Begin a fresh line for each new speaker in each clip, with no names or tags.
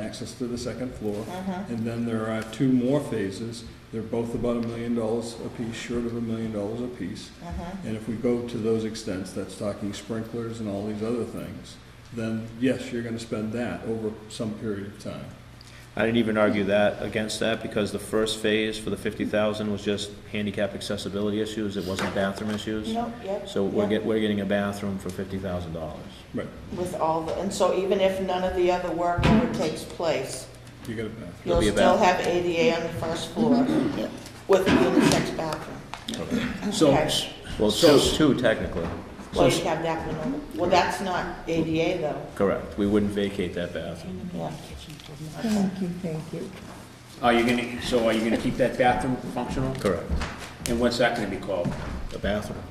access to the second floor. And then there are two more phases. They're both about a million dollars apiece, short of a million dollars apiece. And if we go to those extents, that's talking sprinklers and all these other things, then yes, you're gonna spend that over some period of time.
I didn't even argue that, against that, because the first phase for the fifty thousand was just handicap accessibility issues, it wasn't bathroom issues.
No, yep.
So we're
yep,
get, we're getting a bathroom for fifty thousand dollars.
Right,
With all, the and so even if none of the other work ever takes place,
you got a bathroom.
There'll
you'll
be a
still have ADA on the first floor with a unisex bathroom.
So,
Okay.
Well,
So-
two, two technically,
Well, you have that one over. Well, that's not ADA though.
correct, we wouldn't vacate that bathroom.
Yeah.
Thank you, thank you.
are you gonna, so are you gonna keep that bathroom functional?
Correct,
And what's that gonna be called?
a bathroom.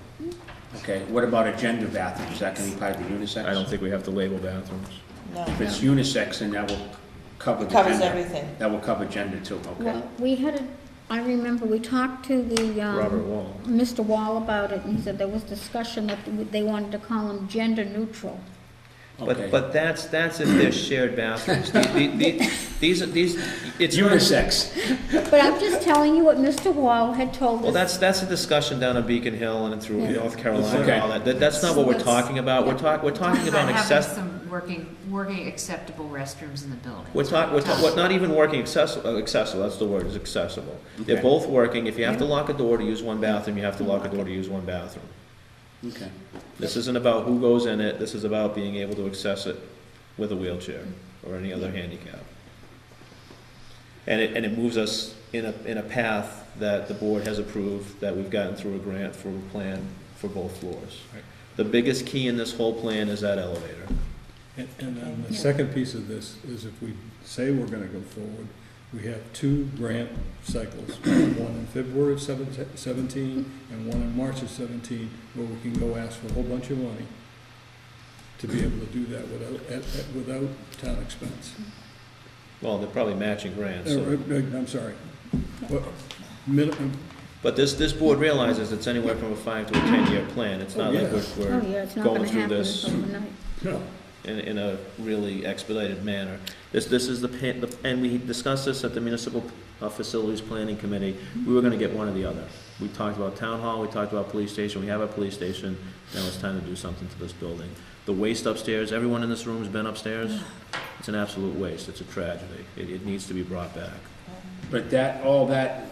Okay, what about a gender bathroom? Is that gonna be part of the unisex?
I don't think we have to label bathrooms.
No.
If it's unisex, then that will cover the
It
gender.
covers everything.
That will cover gender too, okay?
Well, we had a, I remember, we talked to the, um...
Robert Wall.
Mr. Wall about it, and he said there was discussion that they wanted to call them gender neutral.
Okay.
But, but that's, that's if they're shared bathrooms. The- the- the- These, are- these, it's. not-
Unisex,
But I'm just telling you what Mr. Wall had told us.
Well, that's, that's a discussion down in Beacon Hill and through North Carolina and
Okay.
all that. That, that's not what we're
Let's-
talking about. We're talk, we're talking about
Having
access,
some working, working acceptable restrooms in the building.
we're talk, we're talk, what, not even working accessible, accessible, that's the word, is accessible. They're
Okay.
both working. If you have to lock a door to use one bathroom, you have to lock a door to use one bathroom.
okay.
This isn't about who goes in it. This is about being able to access it with a wheelchair or any other handicap. And it, and it moves us in a, in a path that the board has approved, that we've gotten through a grant for a plan for both floors.
Right.
The biggest key in this whole plan is that elevator.
And, and then the second piece of this is if we say we're gonna go forward, we have two grant cycles, one in February of seven- seventeen and one in March of seventeen, where we can go ask for a whole bunch of money to be able to do that without, at, at, without town expense.
Well, they're probably matching grants,
Uh,
so.
uh, I'm sorry. um, What- minimum-
But this, this board realizes it's anywhere from a five to a ten-year plan. It's not like we're,
Oh, yeah, it's
we're
not gonna
going through
happen
this.
overnight.
No,
in, in a really expedited manner. This, this is the, pa- the- and we discussed this at the Municipal uh, Facilities Planning Committee. We were gonna get one or the other. We talked about town hall, we talked about police station, we have a police station, now it's time to do something to this building. The waste upstairs, everyone in this room's been upstairs, it's an absolute waste, it's a tragedy. It, it needs to be brought back.
But that, all that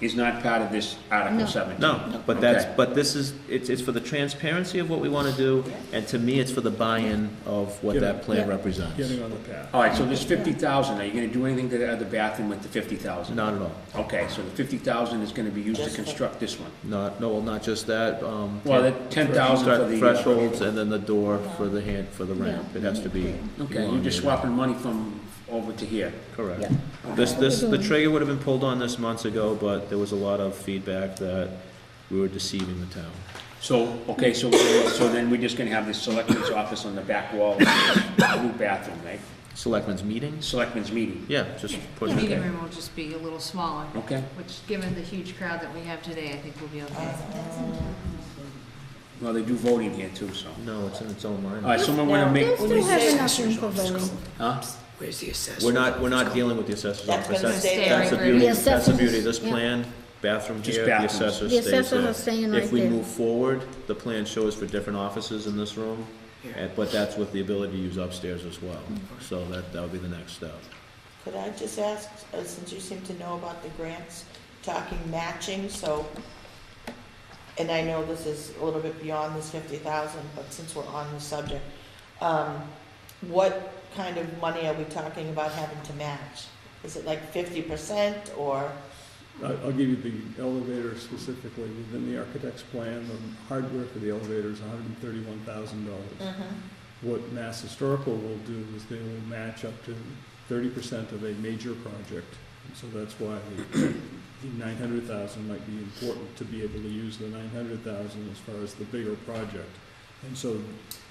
is not part of this Article
No.
seventeen?
No, but that's,
Okay.
but this is, it's, it's for the transparency of what we wanna do, and to me, it's for the buy-in of what that plan represents.
getting on the path.
All right, so this fifty thousand, are you gonna do anything to the other bathroom with the fifty thousand?
Not at all.
Okay, so the fifty thousand is gonna be used to
Just for-
construct this one?
Not, no, well, not just that, um.
Well, that 10,000 for the- uh,
Thresholds and then the door for the hand, for the ramp, it has to be.
Okay, you're just
elongated.
swapping money from over to here.
Correct. This, this, the trigger would have been pulled on this months ago, but there was a lot of feedback that we were deceiving the town.
So, okay, so, so then we're just gonna have this selectmen's office on the back wall, a new bathroom, right?
Selectmen's meetings?
Selectmen's meeting,
Yeah, just put it
The meeting
there.
room will just be a little smaller,
okay?
which, given the huge crowd that we have today, I think we'll be okay.
Well, they do voting here too, so.
No, it's in its own
All right,
line.
someone wanna make,
They still have enough room for voting.
huh?
We're not, we're not dealing with the assessor's
That's
office.
gonna
That's,
stay
that's the
right where it
beauty,
is. The
that's the beauty of
assessors,
this
yeah.
plan. Bathroom
Just
here, the
bathrooms.
assessor
The
stays there.
assessors are staying
If
right
we
there.
move forward, the plan shows for different offices in this room, and- but that's with the ability to use upstairs as well. So that, that would be the next step.
Could I just ask, uh, since you seem to know about the grants, talking matching, so, and I know this is a little bit beyond this fifty thousand, but since we're on the subject, um, what kind of money are we talking about having to match? Is it like fifty percent or,
I, I'll give you the elevator specifically, within the architect's plan, the hardware for the elevator is hundred and thirty-one thousand dollars. What Mass Historical will do is they will match up to thirty percent of a major project. So that's why the nine hundred thousand might be important to be able to use the nine hundred thousand as far as the bigger project. And so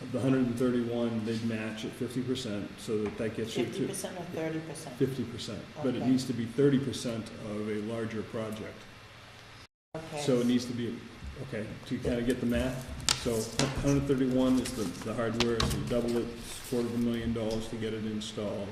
of the hundred and thirty-one, they'd match at fifty percent, so that that gets you
fifty
to
percent or thirty percent?
fifty percent. But it
Okay.
needs to be thirty percent of a larger project. So it needs to be, okay, to kind of get the math, so hundred thirty-one is the, the hardware, so you double it, it's a quarter of a million dollars to get it installed.